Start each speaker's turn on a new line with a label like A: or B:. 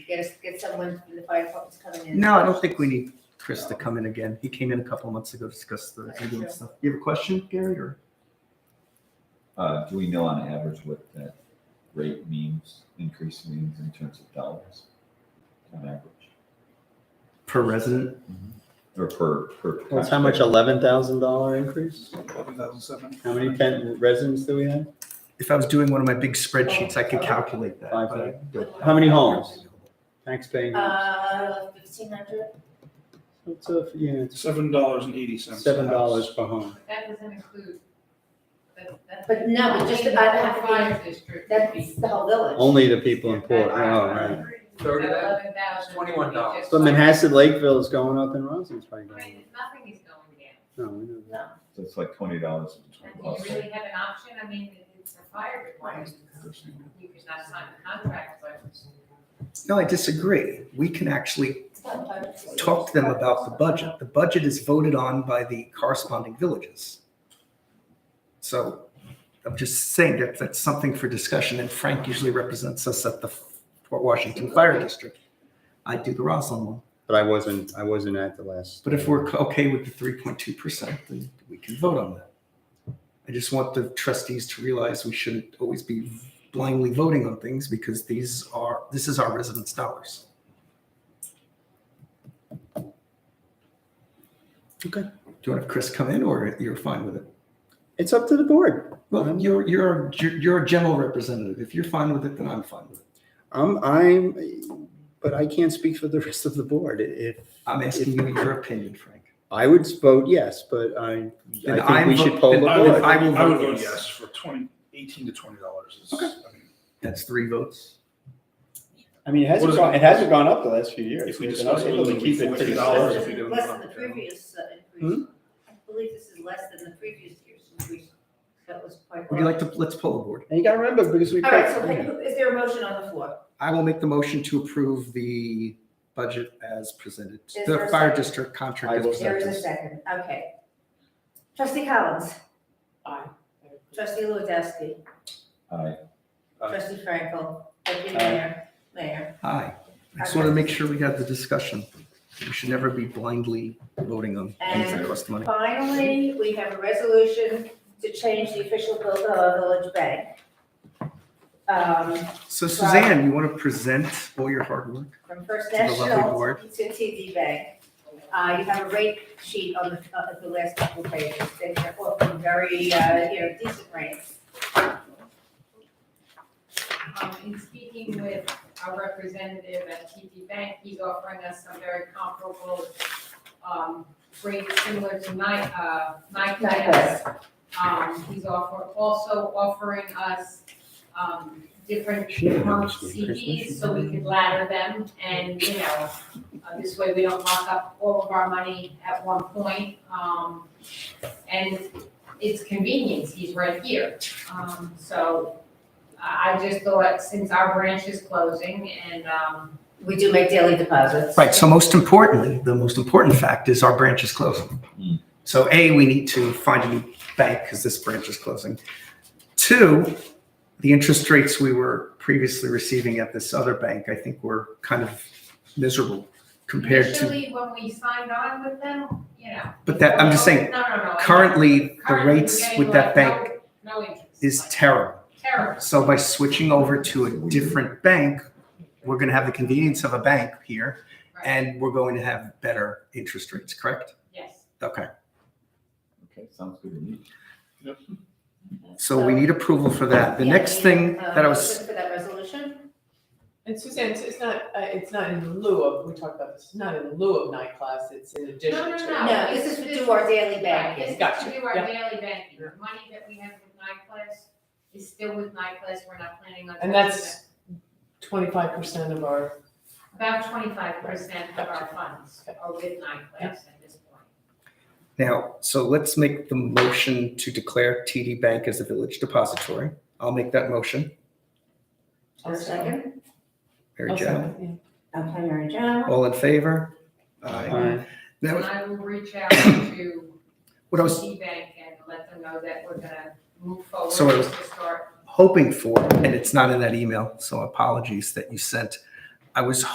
A: get us, get someone from the fire department's coming in.
B: No, I don't think we need Chris to come in again. He came in a couple months ago to discuss the ambulance stuff. You have a question, Gary, or?
C: Uh, do we know on average what that rate means, increase means in terms of dollars? On average,
B: Per resident?
C: or per, per.
D: That's how much, eleven thousand dollar increase? How
E: How
D: many pen residents do we have?
B: If I was doing one of my big spreadsheets, I could calculate that.
D: Five
B: but I don't.
D: How many homes? Tax paying homes?
A: Uh, fifteen hundred?
D: It's a, yeah, it's
E: Seven dollars and eighty cents.
D: seven dollars per home.
F: That doesn't include. that- that's-
A: But no, but just about half the-
F: Fire district.
A: That's the whole village.
D: Only the people in Port, oh, right.
G: Thirty of that?
F: Eleven thousand.
G: $21.
D: But Manhasset Lakeville is going up and Roslyn's probably
F: I
D: going
F: mean,
D: up.
F: nothing is going down.
D: No, we know that.
C: So it's like twenty dollars.
F: And do you really have an option? I mean, it's a fire department. You could not sign the contract, but.
B: No, I disagree. We can actually
A: It's not five hundred.
B: talk to them about the budget. The budget is voted on by the corresponding villages. So I'm just saying that that's something for discussion, and Frank usually represents us at the Fort Washington Fire District. I do the Roslyn one.
D: But I wasn't, I wasn't at the last.
B: But if we're okay with the three point two percent, then we can vote on that. I just want the trustees to realize we shouldn't always be blindly voting on things because these are, this is our residents' dollars. Okay. Do you want to have Chris come in or you're fine with it?
D: It's up to the board.
B: Well, you're, you're, you're a general representative. If you're fine with it, then I'm fine with it.
D: I'm, I'm, but I can't speak for the rest of the board. If,
B: I'm asking you your opinion, Frank.
D: I would vote yes, but I,
B: Then
D: I think
B: I'm
D: we
B: vo-
D: should poll the
B: then
E: I would,
D: board.
B: I will
E: I would
B: vote
E: vote
B: yes.
E: yes for twenty, eighteen to twenty dollars is, I mean,
B: That's three votes.
D: I mean, it
E: What
D: hasn't
E: is
D: gone,
E: it?
D: it hasn't gone up the last few years.
E: If we
D: We've been
E: discuss it,
D: able to
E: it'll be
D: keep it
E: $40
D: pretty
E: dollars
A: Less
E: if you
A: than-
E: do it
A: Less
E: on
A: than the
E: the general.
A: previous uh, increase.
B: Hmm?
A: I believe this is less than the previous year's increase. That was quite.
B: Would you like to, let's poll the board?
D: And you gotta remember, because we.
A: All right, so who- is there a motion on the floor?
B: I will make the motion to approve the budget as presented,
A: Is there
B: the
A: a
B: fire
A: second?
B: district contract
D: I
B: as
D: will
A: There is a
B: presented.
A: second, okay. Trustee Collins,
G: Aye.
A: trustee Lewandowski,
C: I,
E: Aye.
A: trustee Frankel, deputy
D: Aye.
A: mayor, mayor.
B: Aye. I just want to make sure we have the discussion. We should never be blindly voting on things that
A: And-
B: cost money.
A: Finally, we have a resolution to change the official building of our village bank. Um,
B: So Suzanne, you want to present all your hard work?
A: from First
B: To the lovely
A: National to
B: board.
A: TD Bank. Uh, you have a rate sheet on the, uh, the last couple pages, they're often very, uh, you know, decent rates.
F: Um, in speaking with our representative at TD Bank, he's offering us some very comparable, um, rates similar to Ni- uh, Nike banks. Um, he's offer, also offering us, um, different
D: She didn't have
F: term
D: this one, Chris, did she?
F: CDs, so we could ladder them, and, you know, uh, this way we don't lock up all of our money at one point, um, and it's convenience, he's right here, um, so, I I just thought, since our branch is closing and, um,
A: We do make daily deposits.
B: Right, so most importantly, the most important fact is our branch is
C: Hmm.
B: closing. So A, we need to find a new bank because this branch is closing. Two, the interest rates we were previously receiving at this other bank, I think were kind of miserable compared to,
F: initially, when we signed on with them, you know.
B: but that, I'm just saying,
F: No, no, no, I know.
B: currently, the
F: Currently, we're
B: rates
F: getting
B: with that
F: like no-
B: bank
F: No interest.
B: is
F: like
B: terrible.
F: Terrible.
B: So by switching over to a different bank, we're going to have the convenience of a bank here
F: Right.
B: and we're going to have better interest rates, correct?
F: Yes.
B: Okay.
C: okay, sounds good to me.
B: So we need approval for that. The next thing that I was,
A: Motion Um, For that resolution?
G: And Suzanne, it's, it's not, uh, it's not in lieu of, we talked about this, it's not in lieu of night class, it's in addition
F: No, no,
G: to.
F: no.
A: No, this is to do our daily banking.
G: Gotcha.
F: To do our
G: Yeah.
F: daily banking, the money that we have with NICLAS is still with NICLAS, we're not planning on.
G: And that's twenty-five percent of our,
F: About twenty-five percent of our funds are with NICLAS at this point.
B: now, so let's make the motion to declare TD Bank as a village depository. I'll make that motion.
G: I'll
A: Is there a second?
B: Mary
G: oh,
B: Jo.
G: sorry, yeah.
A: Okay, Mary Jo.
B: All in favor? Aye.
D: Aye.
B: That
F: And
B: was
F: I will reach out to
B: what I was
F: Bank and let them know that we're gonna move forward
B: So it was-
F: to start
B: hoping for, and it's not in that email, so apologies that you sent. I was